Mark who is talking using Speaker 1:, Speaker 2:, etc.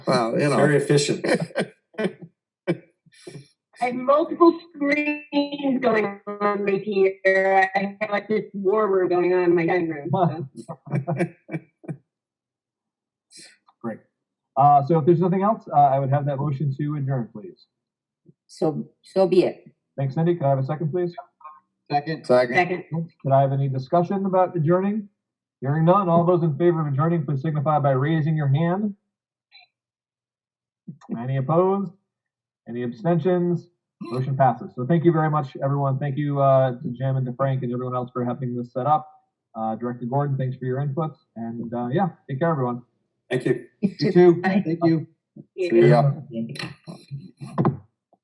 Speaker 1: Well, you know,
Speaker 2: Very efficient.
Speaker 3: I have multiple screens going on right here. I have like this war room going on in my dining room. so.
Speaker 4: Uh, so if there's nothing else, uh, I would have that motion to adjourn, please.
Speaker 5: So, so be it.
Speaker 4: Thanks, Cindy. Could I have a second, please?
Speaker 6: Second.
Speaker 1: second,
Speaker 3: Second.
Speaker 4: Could I have any discussion about adjourning? Hearing none, all those in favor of adjourning, please signify by raising your hand. Any opposed? Any abstentions? Motion passes. So thank you very much, everyone. Thank you, uh, to Jim and to Frank and everyone else for helping this set up. Uh, Director Gordon, thanks for your input. And, uh, yeah, take care, everyone.
Speaker 2: Thank you.
Speaker 6: You too. Thank you.
Speaker 1: yeah.